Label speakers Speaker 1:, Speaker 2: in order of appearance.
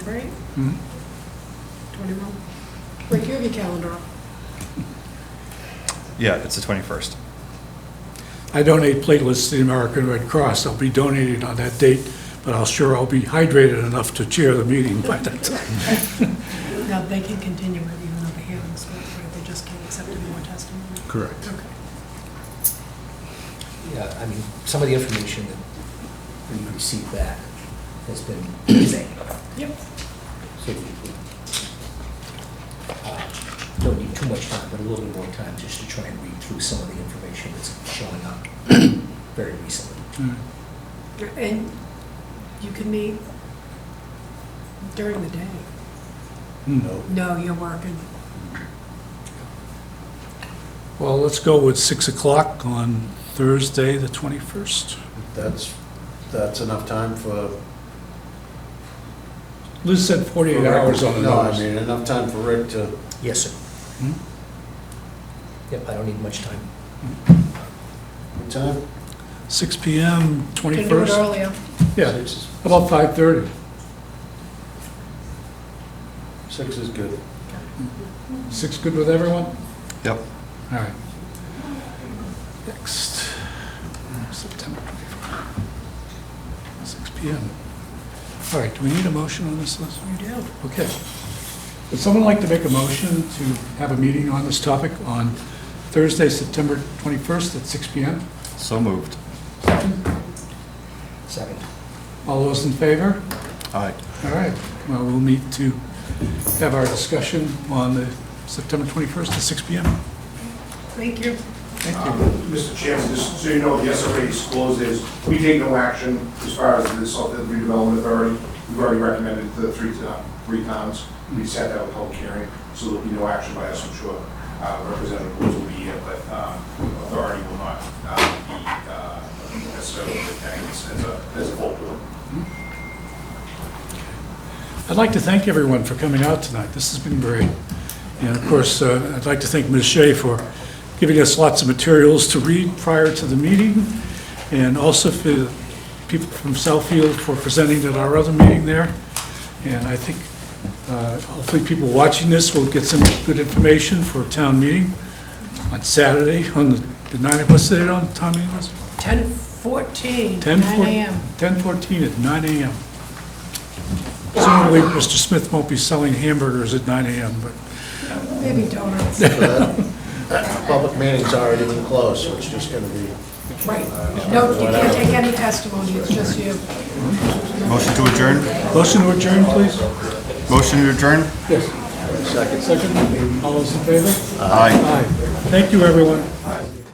Speaker 1: Right?
Speaker 2: Mhm.
Speaker 1: Twenty-one. Wait, you have your calendar up.
Speaker 3: Yeah, it's the 21st.
Speaker 2: I donate platelets to the American Red Cross. I'll be donating on that date, but I'll sure I'll be hydrated enough to chair the meeting by that time.
Speaker 1: Now, they can continue it even though the hearing's not, right, they just can't accept any more testimony.
Speaker 2: Correct.
Speaker 1: Okay.
Speaker 4: Yeah, I mean, some of the information that we received back has been vague,
Speaker 1: Yep.
Speaker 4: so we- we, uh, don't need too much time, but a little bit more time just to try and read through some of the information that's showing up very recently.
Speaker 1: And you can meet during the day.
Speaker 4: No.
Speaker 1: No, you're working.
Speaker 2: Well, let's go with 6 o'clock on Thursday, the 21st.
Speaker 5: That's, that's enough time for.
Speaker 2: Liz said 48 hours on the
Speaker 5: No, I
Speaker 2: nose.
Speaker 5: mean, enough time for Rick to,
Speaker 4: Yes, sir.
Speaker 2: Hmm?
Speaker 4: Yep, I don't need much time.
Speaker 5: what time?
Speaker 2: 6 PM,
Speaker 1: Can do it
Speaker 2: 21st?
Speaker 1: earlier.
Speaker 2: Yeah,
Speaker 5: Six is-
Speaker 2: about 5:30.
Speaker 5: Six is good.
Speaker 2: 6 good with everyone?
Speaker 3: Yep.
Speaker 2: All right. Next, September 24th, 6 PM. All right, do we need a motion on this, Liz?
Speaker 1: You do.
Speaker 2: Okay. Would someone like to make a motion to have a meeting on this topic on Thursday, September 21st at 6 PM?
Speaker 3: So moved.
Speaker 4: Second.
Speaker 2: All those in favor?
Speaker 3: Aye.
Speaker 2: All right, well, we'll meet to have our discussion on the September 21st at 6 PM.
Speaker 1: Thank you.
Speaker 2: Thank
Speaker 6: Um,
Speaker 2: you.
Speaker 6: Mr. Chairman, just so you know, the SRA discloses, we take no action as far as the Southfield Redevelopment Authority. We've already recommended the three, to- three towns. We set that with public hearing, so there'll be no action by us, I'm sure. Uh, Representative Woods will be here, but um, authority will not uh, be uh, necessarily attacking this as a, as a full board.
Speaker 2: I'd like to thank everyone for coming out tonight. This has been great. And of course, uh, I'd like to thank Ms. Shea for giving us lots of materials to read prior to the meeting, and also for the people from Southfield for presenting at our other meeting there. And I think uh, hopefully people watching this will get some good information for a town meeting on Saturday, on the, the nine of us, did it on, Tom, it was?
Speaker 1: Ten fourteen,
Speaker 2: 10,
Speaker 1: nine AM.
Speaker 2: 10:14 at 9 a.m. Presumably, Mr. Smith won't be selling hamburgers at 9 a.m., but
Speaker 1: Maybe donuts.
Speaker 5: So that- Public meeting's already been closed, so it's just gonna be.
Speaker 1: Right. No, you can't take any testimony, it's just you.
Speaker 3: Motion to adjourn?
Speaker 2: motion to adjourn, please?
Speaker 3: Motion to adjourn?
Speaker 2: Yes. Second. Second. All those in favor?
Speaker 3: Aye.
Speaker 2: Aye. Thank you, everyone.